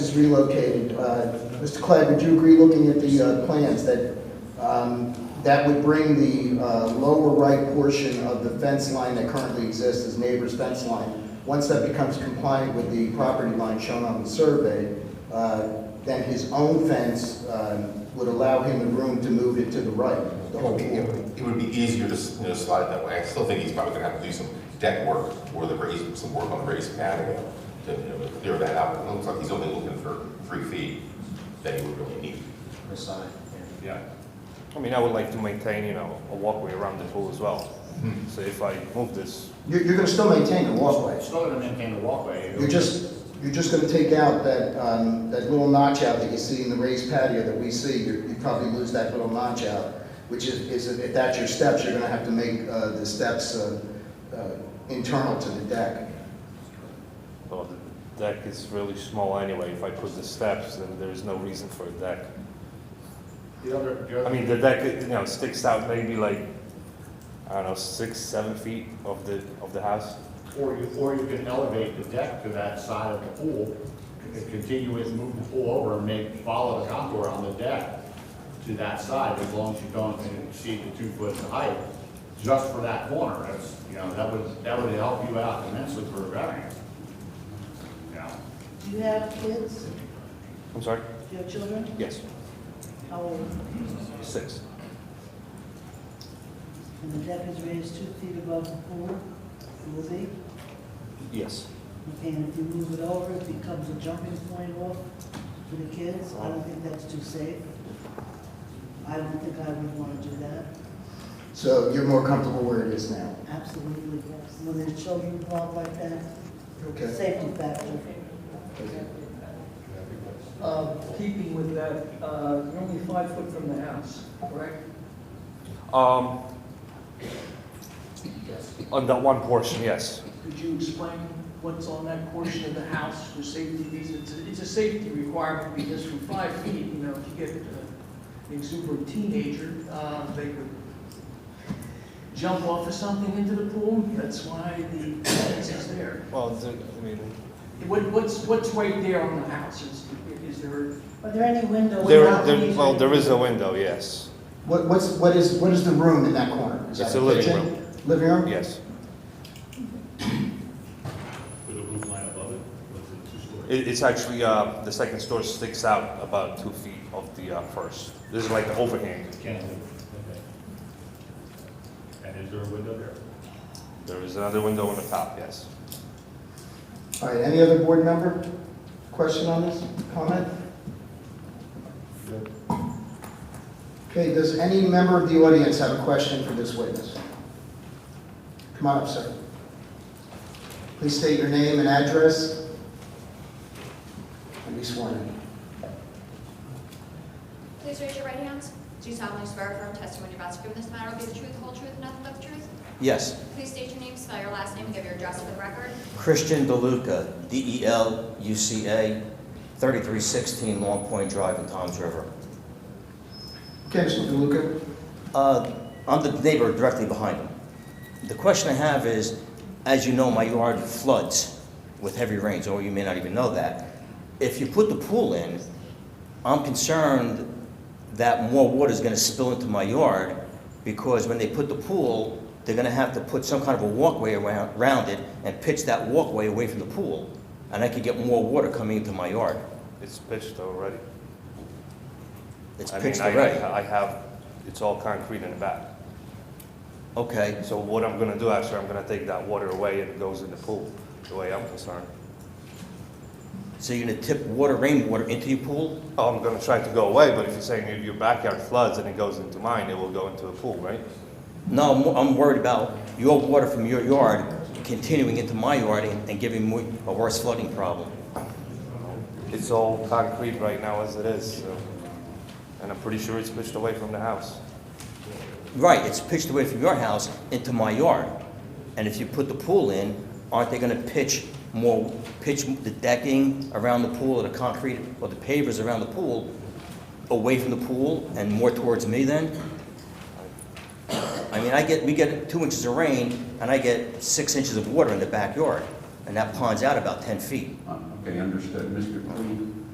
is relocated. Uh, Mr. Clegg, would you agree, looking at the uh, plans, that um, that would bring the uh, lower right portion of the fence line that currently exists as neighbor's fence line, once that becomes compliant with the property line shown on the survey, uh, then his own fence um, would allow him the room to move it to the right, the It whole would be, it pool. would- it would be easier to, s- you know, slide it that way. I still think he's probably gonna have to do some deck work or the raise, some work on the raised patio to, you know, clear that out. It looks like he's only looking for three feet that he would really need. per side. Yeah. I mean, I would like to maintain, you know, a walkway around the pool as well. So if I move this, You're going to still maintain the walkway. It's not gonna maintain the walkway. You're just, you're just gonna take out that, um, that little notch out that you see in the raised patio that we see, you you probably lose that little notch out, which is, is, if that's your steps, you're gonna have to make, uh, the steps, uh, uh, internal to the deck. well, the deck is really small anyway. If I put the steps, then there is no reason for a deck. The other, the I other, mean, the deck, you know, sticks out maybe like, I don't know, six, seven feet of the, of the house. or you, or you can elevate the deck to that side of the pool, and continue it, move the pool over, and make, follow the contour on the deck to that side, as long as you don't exceed the two foot in height, just for that corner, that's, you know, that would, that would help you out immensely for a variance. You know, Do you have kids? I'm sorry? Do you have children? Yes, How old? six. And the deck is raised two feet above the pool, it will be. Yes. And if you move it over, it becomes a jumping point off for the kids. I don't think that's too safe. I don't think I would want to do that. So you're more comfortable where it is now? Absolutely, yes. When there's children involved like that, Okay. safety factor. Uh, Keeping with that, uh, you're only five foot from the house, correct? Um, Yes. on that one portion, yes. Could you explain what's on that portion of the house for safety reasons? It's a safety requirement because from five feet, you know, if you get uh, an exuberant teenager, uh, they could jump off of something into the pool. That's why the fence is there. Well, the- I mean, What- What's, what's right there on the house? Is is there, Are there any windows? there, balconies, there, or well, there is anything? a window, yes. What, what's, what is, what is the room in that corner? Is that It's a living kitchen? room. Living room? Yes. with a roof line above it, was it two stories? It, it's actually, uh, the second story sticks out about two feet of the, uh, first. This is like the overhang. Cantilever, okay. And is there a window there? There is another window on the top, yes. All right, any other board member? Question on this? Comment? Okay, does any member of the audience have a question for this witness? Come on up, sir. Please state your name and address. And be sworn in. Please raise your right hands. Do you solemnly swear affirm testimony you're about to give in this matter will be the truth, whole truth, and nothing but the truth? Yes, Please state your name, spell your last name, and give your address for the record. Christian DeLuca, E D-E-L-U-C-A, 3316 Long Point Drive in Toms River. Okay, Mr. DeLuca? Uh, I'm the neighbor directly behind him. The question I have is, as you know, my yard floods with heavy rains, or you may not even know that. If you put the pool in, I'm concerned that more water is going to spill into my yard because when they put the pool, they're going to have to put some kind of a walkway around, around it and pitch that walkway away from the pool, and I could get more water coming into my yard. It's pitched already. It's I mean, pitched I- already. I have, it's all concrete in the back. Okay, So what I'm gonna do after, I'm gonna take that water away and it goes in the pool, the way I'm concerned. so you're going to tip water, rainwater into your pool? Oh, I'm gonna try to go away, but if you're saying if your backyard floods and it goes into mine, it will go into a pool, right? No, I'm, I'm worried about your water from your yard continuing into my yard and, and giving me a worse flooding problem. It's all concrete right now as it is, so. And I'm pretty sure it's pitched away from the house. Right, it's pitched away from your house into my yard. And if you put the pool in, aren't they gonna pitch more, pitch the decking around the pool or the concrete or the pavers around the pool away from the pool and more towards me then? I mean, I get, we get two inches of rain and I get six inches of water in the backyard and that ponds out about ten feet. Okay, understood. Mr. Clean,